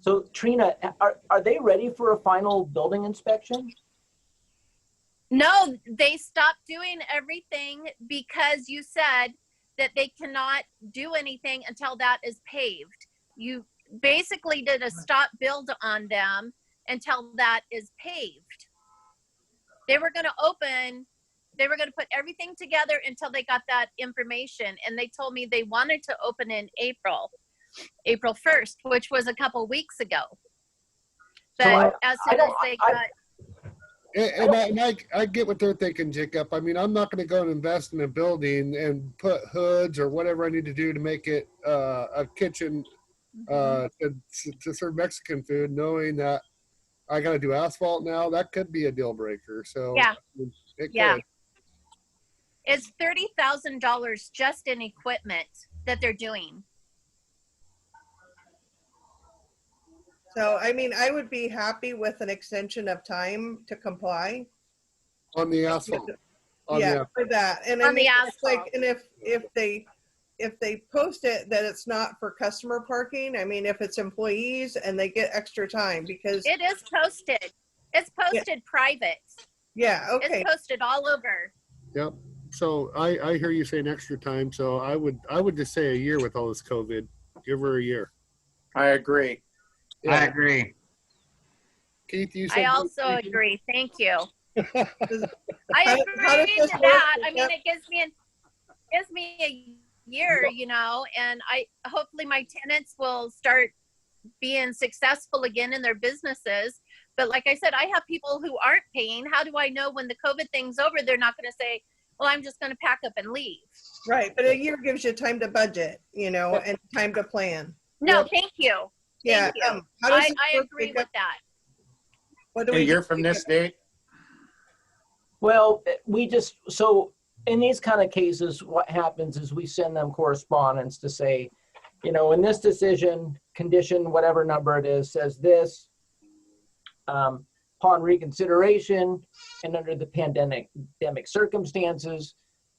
So Trina, are, are they ready for a final building inspection? No, they stopped doing everything because you said that they cannot do anything until that is paved. You basically did a stop build on them until that is paved. They were gonna open, they were gonna put everything together until they got that information, and they told me they wanted to open in April, April first, which was a couple weeks ago. So I- But as soon as don't- they I- got, And, and, I, and I, I get what they're thinking, Jacob. I mean, I'm not going to go and invest in a building and put hoods or whatever I need to do to make it uh, a kitchen uh, Mm-hmm. to, to serve Mexican food, knowing that I got to do asphalt now. That could be a deal breaker. So Yeah. it Yeah. could. It's thirty thousand dollars just in equipment that they're doing. So, I mean, I would be happy with an extension of time to comply. on the asphalt. On Yeah, the, for that. And I On the mean, it's like, asphalt. and if, if they, if they post it that it's not for customer parking, I mean, if it's employees and they get extra time because, It is posted. It's posted private. yeah, okay. It's posted all over. yep. So I, I hear you saying extra time. So I would I would just say a year with all this COVID. Give her a year. I agree. I agree. Keith, you said I also agree. Thank you. How- I how does agree this to that. work? I mean, it gives me an, gives me a year, you know, and I hopefully my tenants will start being successful again in their businesses. But like I said, I have people who aren't paying. How do I know when the COVID thing's over, they're not going to say, "Well, I'm just going to pack up and leave." Right. But a year gives you time to budget, you know, and time to plan. No, Yeah. thank you. Yeah. Thank you. um, how does I, this I work? agree with that. What do A we year do? from this date, Well, we just, so in these kind of cases, what happens is we send them correspondence to say, you know, in this decision, condition, whatever number it is, says this, um, upon reconsideration and under the pandemic, pandemic circumstances,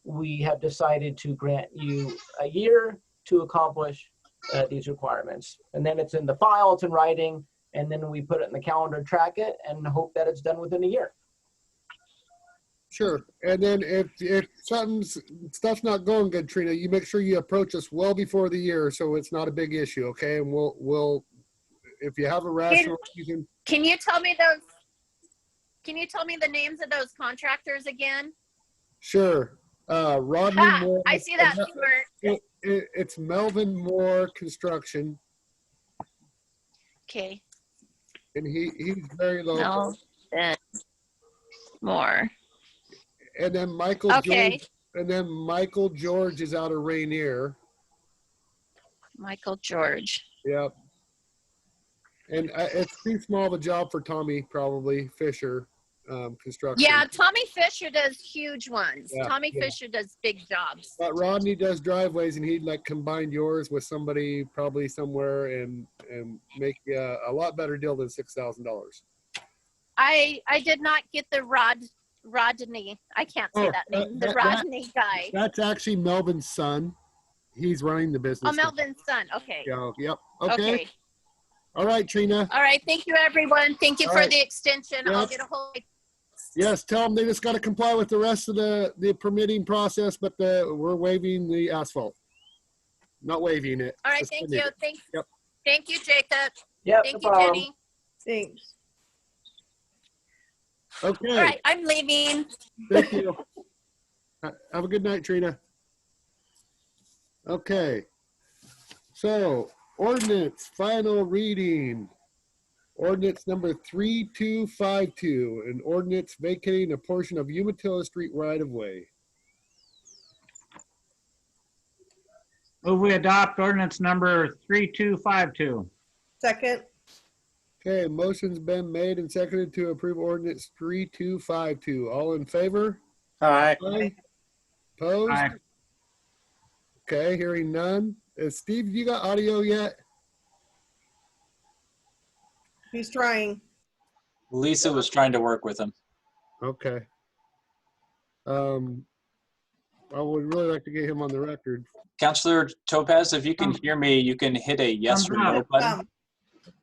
we have decided to grant you a year to accomplish uh, these requirements. And then it's in the file, it's in writing, and then we put it in the calendar, track it, and hope that it's done within a year. Sure. And then if if something's stuff's not going good, Trina, you make sure you approach us well before the year so it's not a big issue, okay? And we'll we'll if you have a rational reason, Can you tell me those? Can you tell me the names of those contractors again? sure. Uh Rodney Ah, Moore I see that smirk. It, it's Melvin Moore Construction Okay, and he he's very local. no, then more. And then Michael Okay, George and then Michael George is out of Rainier. Michael George. Yep. And I, it's too small of a job for Tommy probably Fisher um, construction. Yeah, Tommy Fisher does huge ones. Yeah, Tommy yeah. Fisher does big jobs. But Rodney does driveways, and he'd like combine yours with somebody probably somewhere, and and make uh, a lot better deal than six thousand dollars. I I did not get the Rod Rodney. I can't say Oh, that that- name. The that- that- Rodney guy. That's actually Melvin's son. He's running the business. Oh, Melvin's son. Okay. Yeah, yep. Okay. Okay. All right, Trina. All right. Thank you, everyone. Thank you All for right. the extension. I'll Yep. get a hold. Yes, tell them they just got to comply with the rest of the the permitting process, but the we're waiving the asphalt. Not waiving it. All right. Thank you. Suspending it. Thank. Yep. Thank you, Jacob. Yep, no Thank you, problem. Jenny. Thanks. Okay. All right. I'm leaving. Thank you. Ha- Have a good night, Trina. Okay. So ordinance, final reading. Ordinance number 3252, an ordinance vacating a portion of Umatilla Street right of way. Move we adopt ordinance number 3252. Second, Okay, motion's been made and seconded to approve ordinance 3252. All in favor? aye, Aye. Opposed? Aye. Okay, hearing none. Uh, Steve, you got audio yet? he's trying. Lisa was trying to work with him. Okay. Um, I would really like to get him on the record. Counselor Topaz, if you can hear me, you can hit a yes or no Somehow. button. Um,